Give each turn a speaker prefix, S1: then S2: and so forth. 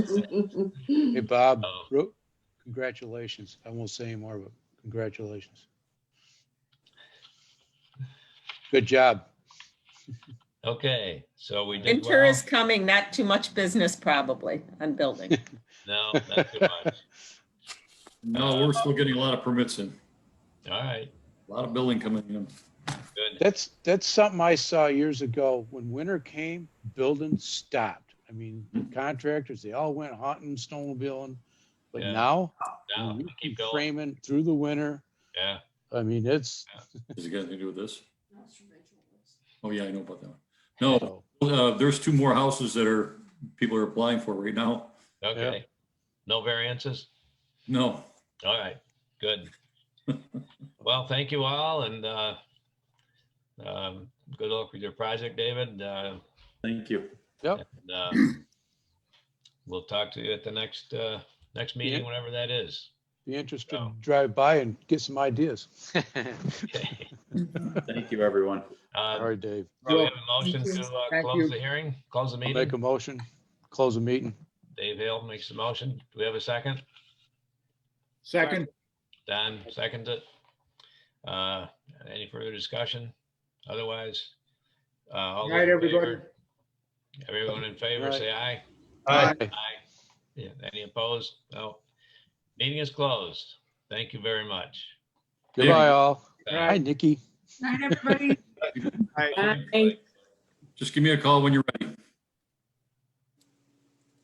S1: Hey, Bob,
S2: Oh.
S1: Ro- congratulations. I won't say anymore, but congratulations. Good job.
S2: Okay, so we did
S3: Winter
S2: well.
S3: is coming, not too much business probably on building.
S2: No, not too much.
S4: No, we're still getting a lot of permits in,
S2: All right,
S4: a lot of building coming in.
S2: good.
S1: That's, that's something I saw years ago. When winter came, building stopped. I mean,
S2: Hmm.
S1: contractors, they all went hunting, snowmobiling. But
S2: Yeah.
S1: now, I
S2: Now,
S1: mean, you
S2: keep
S1: keep
S2: going.
S1: framing through the winter.
S2: Yeah,
S1: I mean, it's,
S4: Has it got anything to do with this? Oh, yeah, I know about that one. No, uh, there's two more houses that are, people are applying for right now.
S2: okay. No variances?
S4: No,
S2: All right, good. Well, thank you all and uh, um, good luck with your project, David. Uh,
S4: thank you.
S2: and, uh, We'll talk to you at the next, uh, next meeting,
S1: Yeah.
S2: whenever that is.
S1: be interested
S2: So.
S1: to drive by and get some ideas.
S2: Okay.
S5: Thank you, everyone.
S1: All
S2: Uh,
S1: right, Dave.
S2: Do we have a motion
S6: Thank
S2: to
S6: you.
S2: uh,
S6: Thank
S2: close
S6: you.
S2: the hearing, close the
S1: I'll Make
S2: meeting?
S1: a motion, close the meeting.
S2: Dave Hill makes the motion. Do we have a second?
S6: Second,
S2: Don seconds it. Uh, Any further discussion? Otherwise. uh, all
S6: Night,
S2: those in
S6: everybody.
S2: favor- Everyone in favor,
S1: Night.
S2: say aye.
S6: Aye.
S2: Aye. Yeah, Any opposed? No. Meeting is closed. Thank you very much.
S1: Goodbye, all.
S2: Uh,
S1: Hi, Nikki.
S7: Night, everybody.
S4: Just give me a call when you're ready.